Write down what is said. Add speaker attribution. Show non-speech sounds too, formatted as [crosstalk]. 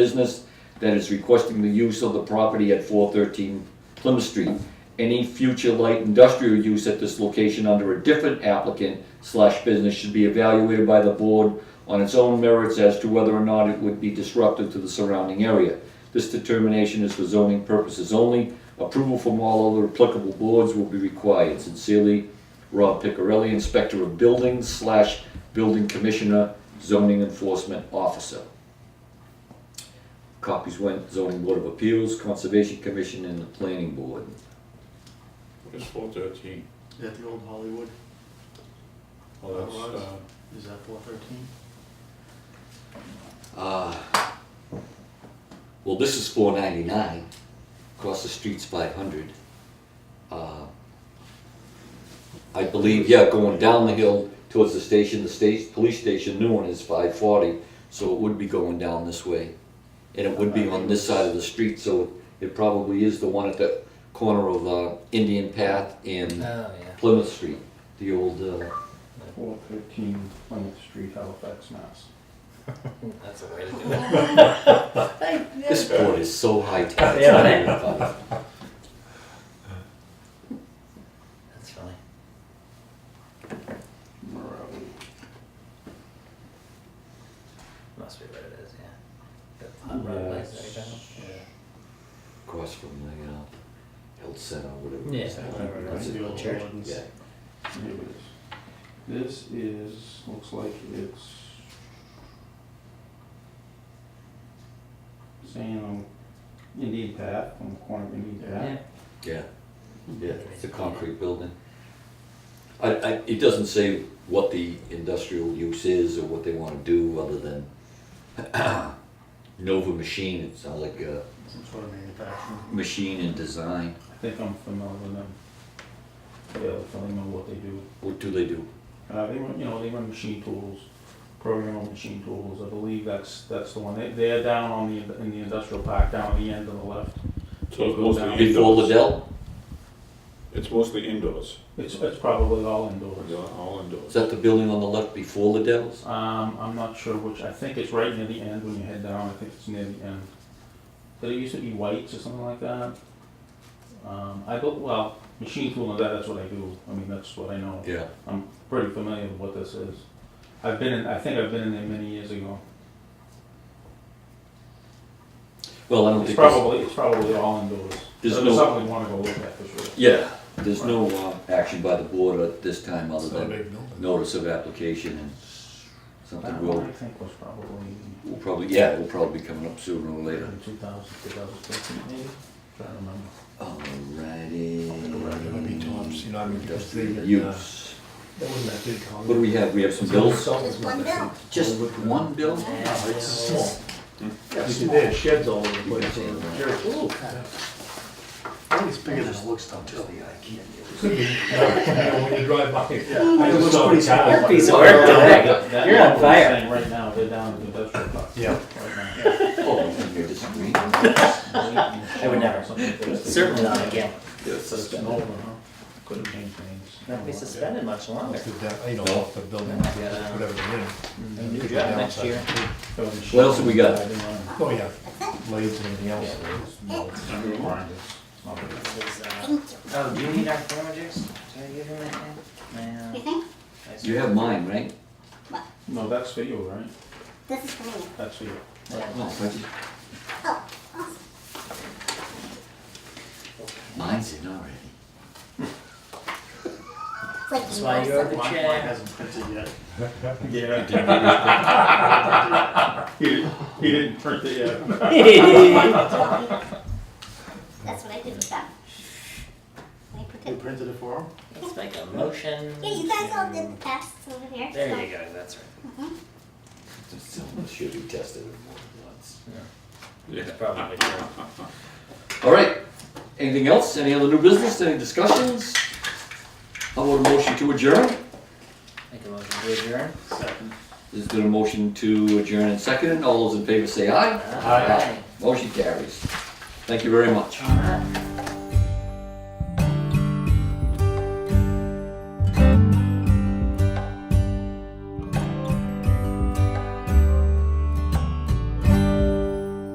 Speaker 1: business that is requesting the use of the property at four thirteen Plymouth Street. Any future light industrial use at this location under a different applicant slash business should be evaluated by the board on its own merits as to whether or not it would be disruptive to the surrounding area. This determination is for zoning purposes only. Approval from all other applicable boards will be required. Sincerely, Rob Picarelli, Inspector of Buildings slash Building Commissioner, Zoning Enforcement Officer. Copies went zoning board of appeals, conservation commission, and the planning board.
Speaker 2: It's four thirteen.
Speaker 3: Is that the old Hollywood?
Speaker 2: Well, that's,
Speaker 3: Otherwise-
Speaker 2: uh,
Speaker 3: Is that four thirteen?
Speaker 1: Uh, well, this is four ninety-nine, across the street's five hundred. Uh, I believe, yeah, going down the hill towards the station, the state, police station, new one is five forty, so it would be going down this way. And it would be on this side of the street, so it probably is the one at the corner of, uh, Indian Path and
Speaker 4: Oh, yeah.
Speaker 1: Plymouth Street, the old, uh,
Speaker 5: Four thirteen Plymouth Street, Halifax, Mass.
Speaker 4: That's a way to do it.
Speaker 1: This board is so high tech.
Speaker 4: Yeah, That's funny.
Speaker 5: Where are we?
Speaker 4: Must be what it is, yeah. The hot rod lights that you got?
Speaker 1: Across from the uh, health center, whatever.
Speaker 4: Yeah.
Speaker 1: it's called.
Speaker 4: whatever it
Speaker 1: That's
Speaker 4: is.
Speaker 1: it.
Speaker 3: The old
Speaker 4: Church.
Speaker 3: ones.
Speaker 1: Yeah.
Speaker 5: Here it is. This is, looks like it's saying on Indian Path, on the corner of Indian
Speaker 4: Yeah.
Speaker 5: Path.
Speaker 1: Yeah, yeah, it's a concrete building. I, I, it doesn't say what the industrial use is or what they wanna do other than [clears throat] Nova Machine, it sounds like uh, a
Speaker 3: Some sort of manufacturing.
Speaker 1: machine and design.
Speaker 5: I think I'm familiar with them. Yeah, I'm familiar with what they do.
Speaker 1: What do they do?
Speaker 5: Uh, they run, you know, they run machine tools, programmable machine tools. I believe that's, that's the one. They, they're down on the, in the industrial park, down at the end on the left.
Speaker 2: so it's
Speaker 5: Go down.
Speaker 2: mostly
Speaker 1: Before
Speaker 2: indoors.
Speaker 1: Liddell?
Speaker 2: It's mostly indoors.
Speaker 5: It's, it's probably all indoors.
Speaker 2: They're all indoors.
Speaker 1: Is that the building on the left before Liddell's?
Speaker 5: Um, I'm not sure which, I think it's right near the end when you head down, I think it's near the end. Did it used to be White's or something like that? Um, I go, well, machine tool and that, that's what I do, I mean, that's what I know.
Speaker 1: Yeah.
Speaker 5: I'm pretty familiar with what this is. I've been in, I think I've been in there many years ago.
Speaker 1: Well, I don't
Speaker 5: It's
Speaker 1: think. this-
Speaker 5: probably, it's probably all indoors.
Speaker 1: There's
Speaker 5: It's
Speaker 1: no-
Speaker 5: something we wanna go look at for sure.
Speaker 1: Yeah, there's no uh, action by the board at this time other
Speaker 3: It's not a
Speaker 1: than
Speaker 3: big building.
Speaker 1: notice of application and something
Speaker 5: That
Speaker 1: we'll,
Speaker 5: one I think was probably
Speaker 1: we'll probably, yeah, will probably be coming up sooner or later.
Speaker 5: in 2000, 2015 maybe, trying to remember.
Speaker 3: Right, it would be tops,
Speaker 1: Alrighty.
Speaker 3: you know, I mean, because they, uh,
Speaker 1: Use.
Speaker 3: that wasn't that big. huh?
Speaker 1: What do we have? We have some bills?
Speaker 3: Salt was
Speaker 6: Just
Speaker 3: not
Speaker 6: one
Speaker 3: that
Speaker 6: bill.
Speaker 3: big.
Speaker 1: Just one bill?
Speaker 3: No, It's small. You
Speaker 6: Yeah,
Speaker 3: see,
Speaker 6: small.
Speaker 3: they had sheds all over the place. and
Speaker 1: Yeah.
Speaker 3: dirt.
Speaker 6: Ooh, kind
Speaker 3: I think it's bigger than it looks, though, just the eye [laughs] can't. When you drive by.
Speaker 5: I
Speaker 3: It
Speaker 5: just
Speaker 3: looks
Speaker 5: saw
Speaker 3: pretty
Speaker 5: the
Speaker 3: small.
Speaker 5: tower.
Speaker 4: That piece of work,
Speaker 5: That-
Speaker 4: Dominic.
Speaker 5: that
Speaker 4: You're on
Speaker 5: one we're
Speaker 4: fire.
Speaker 5: saying Right now, they're down to the industrial park.
Speaker 3: Yeah.
Speaker 5: Right
Speaker 1: Oh, you're disagreeing?
Speaker 5: now.
Speaker 4: I would never.
Speaker 5: Something like this.
Speaker 4: Certainly not again.
Speaker 5: So it's an old one, huh? Couldn't change names.
Speaker 4: Won't be suspended much longer.
Speaker 3: It's the, depth, uh, you know, off the building, whatever it is.
Speaker 4: New job next year.
Speaker 1: What else have we got?
Speaker 3: Oh, yeah, blades and anything else.
Speaker 4: Is, uh,
Speaker 6: Thank you.
Speaker 4: Oh, do you need our camera juice? Should I give him that now? My,
Speaker 6: You
Speaker 4: uh,
Speaker 6: think?
Speaker 4: ice
Speaker 1: You have mine, right?
Speaker 5: No, that's for you, right?
Speaker 6: This is for me.
Speaker 5: That's for you.
Speaker 1: Oh, if I just-
Speaker 6: Oh, awesome.
Speaker 1: Mine's in already.
Speaker 6: Thank
Speaker 4: That's
Speaker 6: you.
Speaker 4: why you're the
Speaker 3: Mine
Speaker 6: [laughs]
Speaker 4: chair.
Speaker 3: hasn't printed yet.
Speaker 5: Yeah. [laughs] He, he didn't print it yet.
Speaker 6: That's what I did with that. I put
Speaker 3: They
Speaker 6: it.
Speaker 3: printed it for him?
Speaker 4: Let's make a motion.
Speaker 6: Yeah, you guys all
Speaker 4: to-
Speaker 6: did the tests over here.
Speaker 4: There
Speaker 6: so-
Speaker 4: you go, that's right.
Speaker 1: Someone Should be tested more than once.
Speaker 2: Yeah.
Speaker 4: That's probably true.
Speaker 1: All right, anything else? Any other new business, any discussions? How about a motion to adjourn?
Speaker 4: Make a motion to adjourn.
Speaker 3: Second.
Speaker 1: Is there a motion to adjourn and second? All those in favor say aye. Motion carries. Thank you very much.
Speaker 4: Aye.